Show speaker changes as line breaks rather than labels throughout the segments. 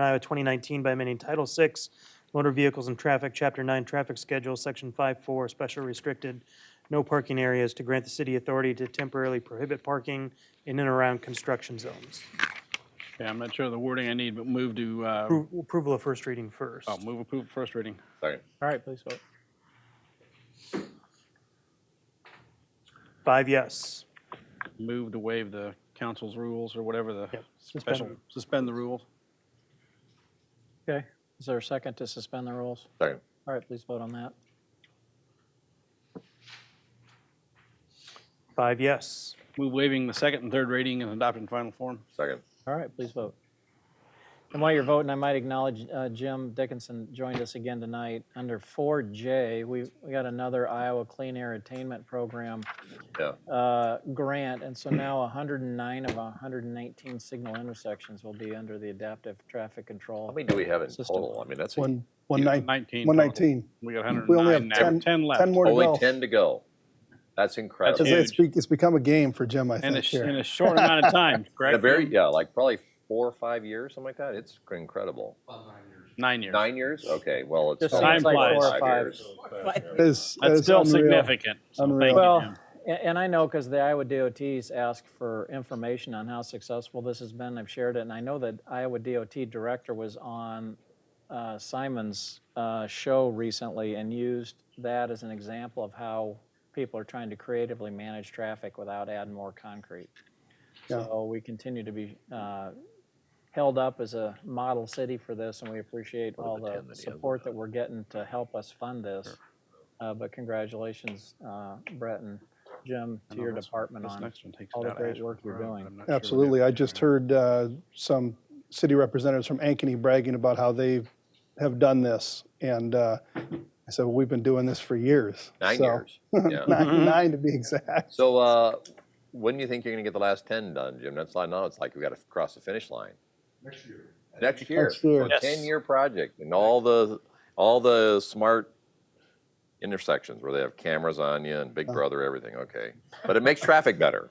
Iowa 2019 by amending Title VI, Motor Vehicles and Traffic, Chapter 9 Traffic Schedule, Section 5-4, Special Restricted, No Parking Areas, to grant the city authority to temporarily prohibit parking in and around construction zones.
Yeah, I'm not sure of the wording I need, but move to, uh,
Appro- Approval of first reading first.
oh, move approval, first reading.
Second.
All right, please vote.
Five yes.
Move to waive the council's rules or whatever the
Yep, suspend
special,
rules.
suspend the rules.
Okay, is there a second to suspend the rules?
Second.
All right, please vote on that.
Five yes.
Move waiving the second and third reading and adopt in final form.
Second.
All right, please vote. And while you're voting, I might acknowledge uh, Jim Dickinson joined us again tonight. Under 4J, we we got another Iowa Clean Air Attainment Program
Yeah.
uh, grant, and so now 109 of 119 signal intersections will be under the adaptive traffic
How
control.
many do we have in
System.
total? I mean, that's a-
One, one nine,
Nineteen.
one
total.
nineteen.
We got hundred
We only
and nine
have
now,
10
ten left.
10 more to go.
only ten to go. That's incredible.
Because
huge.
it's, be- it's become a game for Jim, I
In a,
think,
sh- in
here.
a short amount of time,
In a
correct?
very, yeah, like probably four or five years, something like that. It's incredible.
Nine years.
Nine years? Okay, well, it's.
Just
only
seems like four or
five.
years.
It's-
That's
it's
still
unreal.
significant. So thank you,
Unreal.
Well,
Jim.
a- and I know because the Iowa DOTs ask for information on how successful this has been. I've shared it, and I know that Iowa DOT director was on uh, Simon's uh, show recently and used that as an example of how people are trying to creatively manage traffic without adding more concrete.
Yeah.
So we continue to be uh, held up as a model city for this, and we appreciate all
the
the
ten that he has
support that we're getting to help us fund this. Uh, But congratulations, uh, Brett and Jim, to
No,
your
this-
department
this
on
next one takes
all
it
the
out of
great
Ashland
work you're
Road, but
doing.
I'm not sure we
Absolutely.
have
I
to
just
do
heard uh, some city representatives from Ankeny bragging about how they have done this. And uh, I said, well, we've been doing this for years.
Nine
So-
years. Yeah.
Mm-hmm.
Nine, nine to be exact.
So, uh, when do you think you're gonna get the last ten done, Jim? That's like, now it's like we gotta cross the finish line. Next year.
Next year.
A ten-year project and all the, all the smart intersections where they have cameras on you and Big Brother, everything, okay. But it makes traffic better.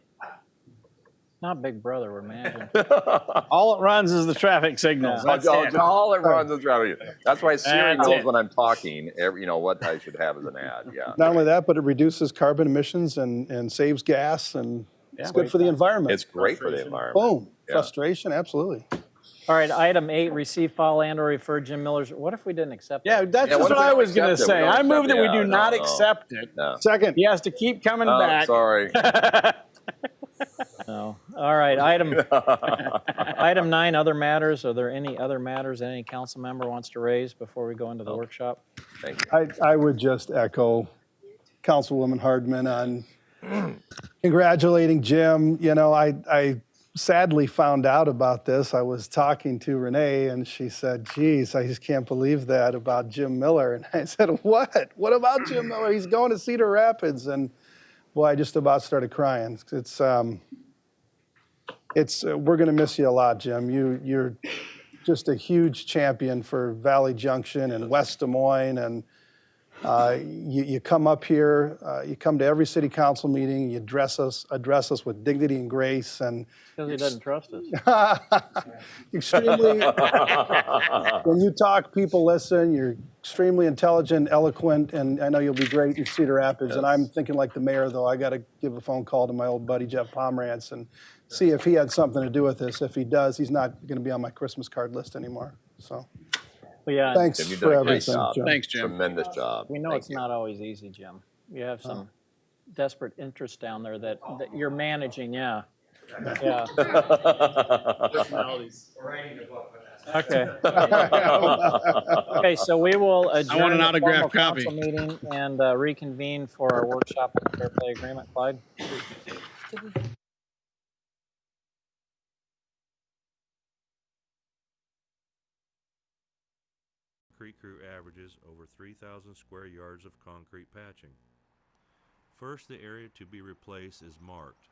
Not Big Brother, we're managing.
that. All it runs is the traffic signals.
I'll-
That's
I'll-
it.
All everyone's just driving. That's why Siri
That's
knows
it.
when I'm talking, every- you know, what I should have as an ad, yeah.
Not only that, but it reduces carbon emissions and, and saves gas and it's
Yeah.
good for the environment.
It's great for the environment.
Boom.
Yeah.
Frustration, absolutely.
All right, item eight, receive, file, and/or refer Jim Miller's, what if we didn't accept?
Yeah,
that?
that's
Yeah,
just what
what if we
I was
accept
gonna
it? We
say.
don't
I
accept
move that we
it.
do
No,
not
no.
accept it.
No.
Second.
He has to keep coming
Oh,
back.
sorry.
No. All right, item, item nine, other matters. Are there any other matters that any council member wants to raise before we go into the workshop?
Thank you.
I, I would just echo Councilwoman Hardman on congratulating Jim. You know, I, I sadly found out about this. I was talking to Renee and she said, geez, I just can't believe that about Jim Miller. And I said, what? What about Jim Miller? He's going to Cedar Rapids. And boy, I just about started crying. It's, um, it's, uh, we're going to miss you a lot, Jim. You, you're just a huge champion for Valley Junction and West Des Moines and uh, you, you come up here, uh, you come to every city council meeting, you address us, address us with dignity and grace, and
Because he doesn't trust us.
extremely. when you talk, people listen. You're extremely intelligent, eloquent, and I know you'll be great in Cedar Rapids. And I'm thinking like the mayor, though. I got to give a phone call to my old buddy Jeff Pomerantz and see if he had something to do with this. If he does, he's not going to be on my Christmas card list anymore. So
Well, Yeah,
thanks
Jim, you've done
for
a great
everything.
job.
Jim.
Thanks, Jim.
Tremendous job.
we know
Thank
it's
you.
not always easy, Jim. You have some desperate interests down there that, that you're managing, yeah. Yeah, okay. Okay, so we will adjourn.
an
the
autographed
formal council
copy.
Meeting and uh, reconvene for our workshop on the fair play agreement. Clyde?
Concrete Crew averages over 3,000 square yards of concrete patching. First, the area to be replaced is marked